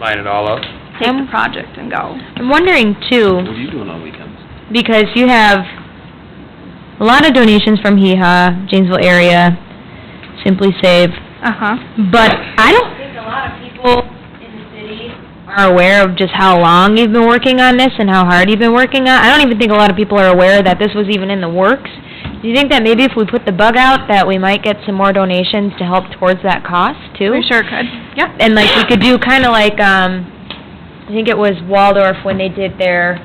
line it all up. take the project and go. I'm wondering too, What are you doing on weekends? because you have a lot of donations from HEHA, Janesville area, Simply Save, Uh-huh. but I don't think a lot of people in the city are aware of just how long you've been working on this and how hard you've been working on. I don't even think a lot of people are aware that this was even in the works. Do you think that maybe if we put the bug out, that we might get some more donations to help towards that cost too? We sure could. Yep. And like, we could do kinda like, um, I think it was Waldorf when they did their,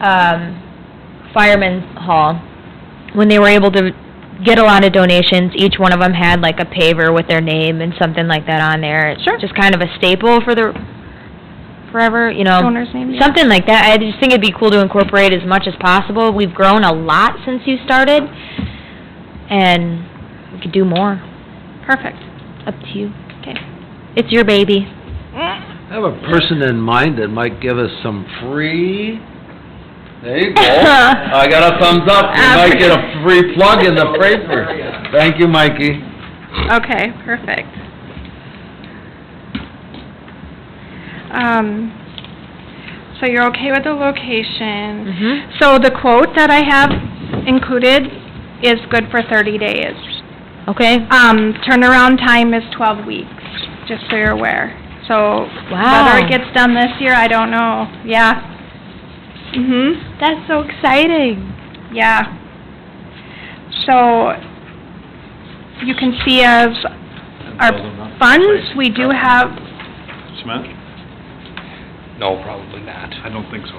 um, fireman's hall. When they were able to get a lot of donations, each one of them had like a paver with their name and something like that on there. It's Sure. Just kind of a staple for the, forever, you know. Owner's name, yeah. Something like that. I just think it'd be cool to incorporate as much as possible. We've grown a lot since you started, and we could do more. Perfect. Up to you. Okay. It's your baby. I have a person in mind that might give us some free, there you go. I got a thumbs up, we might get a free plug in the paper. Thank you, Mikey. Okay, perfect. Um, so you're okay with the location? Mm-hmm. So the quote that I have included is good for thirty days. Okay. Um, turnaround time is twelve weeks, just so you're aware. So whether Wow. it gets done this year, I don't know. Yeah. Mhm. That's so exciting. Yeah. So, you can see as our funds, we do have, Cement? No, probably not. I don't think so.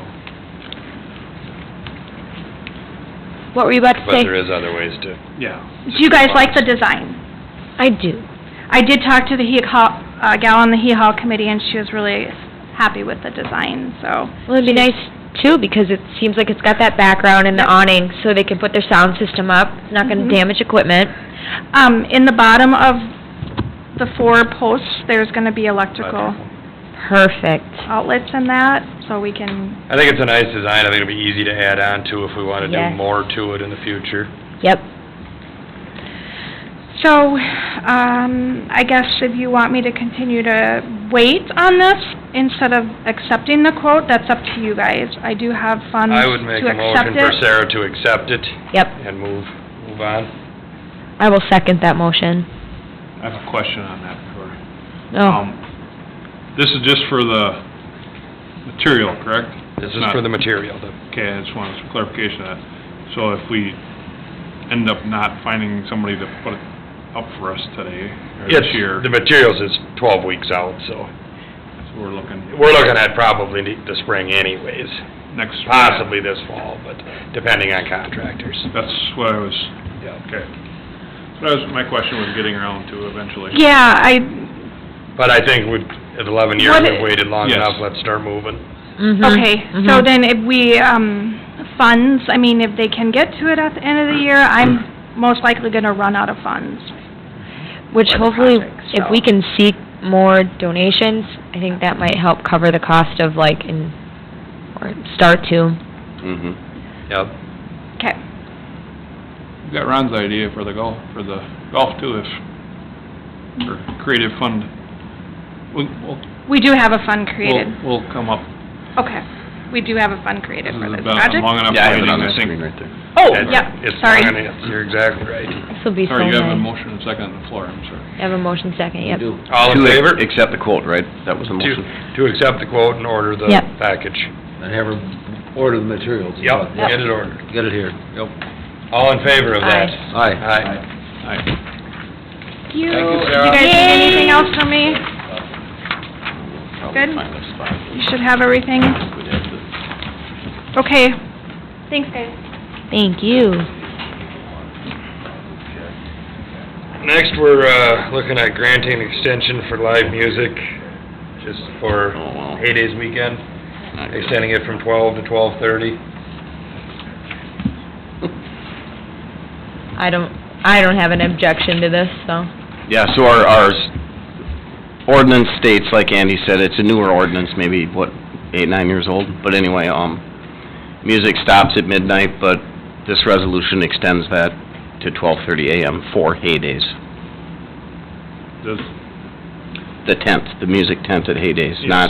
What were you about to But say? there is other ways to. Yeah. do you guys like the design? I do. I did talk to the hee haw, uh, gal on the hee haw committee and she was really happy with the design, so. Well, it'd be nice too because it seems like it's got that background and the awning, so they can put their sound system up. It's not going to Mhm. damage equipment. Um, in the bottom of the four posts, there's gonna be electrical Perfect. outlets in that, so we can, I think it's a nice design. I think it'll be easy to add on to if we wanna Yes. do more to it in the future. Yep. so, um, I guess if you want me to continue to wait on this instead of accepting the quote, that's up to you guys. I do have funds I would make Um, to a accept motion for it. Sarah to accept it Yep. and move, move on. I will second that motion. I have a question on that for, Oh, um, this is just for the material, correct? This is Not- for the material, the- Okay, I just wanted some clarification on that. So if we end up not finding somebody to put it up for us today, or this it's- year, the materials is twelve weeks out, so. so we're looking We're looking at probably the- the spring anyways, next. possibly this fall, but depending on contractors. That's what I was, Yeah. okay. That was, my question was getting around to eventually. Yeah, I, But I think we've, at eleven years, What i- we've waited long Yes. enough, let's start moving. mhm. Okay, so mhm. then if we, um, funds, I mean, if they can get to it at the end of the year, Mm-hmm. I'm most likely gonna run out of funds. Which for the hopefully, project, if so. we can seek more donations, I think that might help cover the cost of like, in, or start to. Mm-hmm. Yep. Okay, We Got Ron's idea for the golf, for the golf too, if, for creative fund. We, we'll we do have a fund created. We'll, we'll come up. Okay, we do have a fund created This for has this been a project. long enough Yeah, I have it meeting, on the I think. screen right there. Oh, It's- yep, it's sorry. fine, it's- You're exactly right. This will be so Sorry, nice. you have a motion and second on the floor, I'm sorry. I have a motion second, yep. You do. All in To ac- favor? Accept the quote, right? That was the To, motion. to accept the quote and order the Yep. package. And have her order the materials. Yep, Yep. get it ordered. Get it here. Yep. All in favor of that? Aye. Aye. Aye. Thank you. Thank you, Do Sarah. you guys need anything else from me? Probably Good. find a spot. You should have everything. We'd have to- Okay. Thanks, guys. Thank you. Next, we're, uh, looking at granting extension for live music, just for Oh, wow. Haydays weekend, not good. extending it from twelve to twelve-thirty. I don't, I don't have an objection to this, so. Yeah, so our, our s- ordinance states, like Andy said, it's a newer ordinance, maybe, what, eight, nine years old? But anyway, um, music stops at midnight, but this resolution extends that to twelve-thirty AM for hay days. Does, the tent, the music tent at Hay Days, Yes. not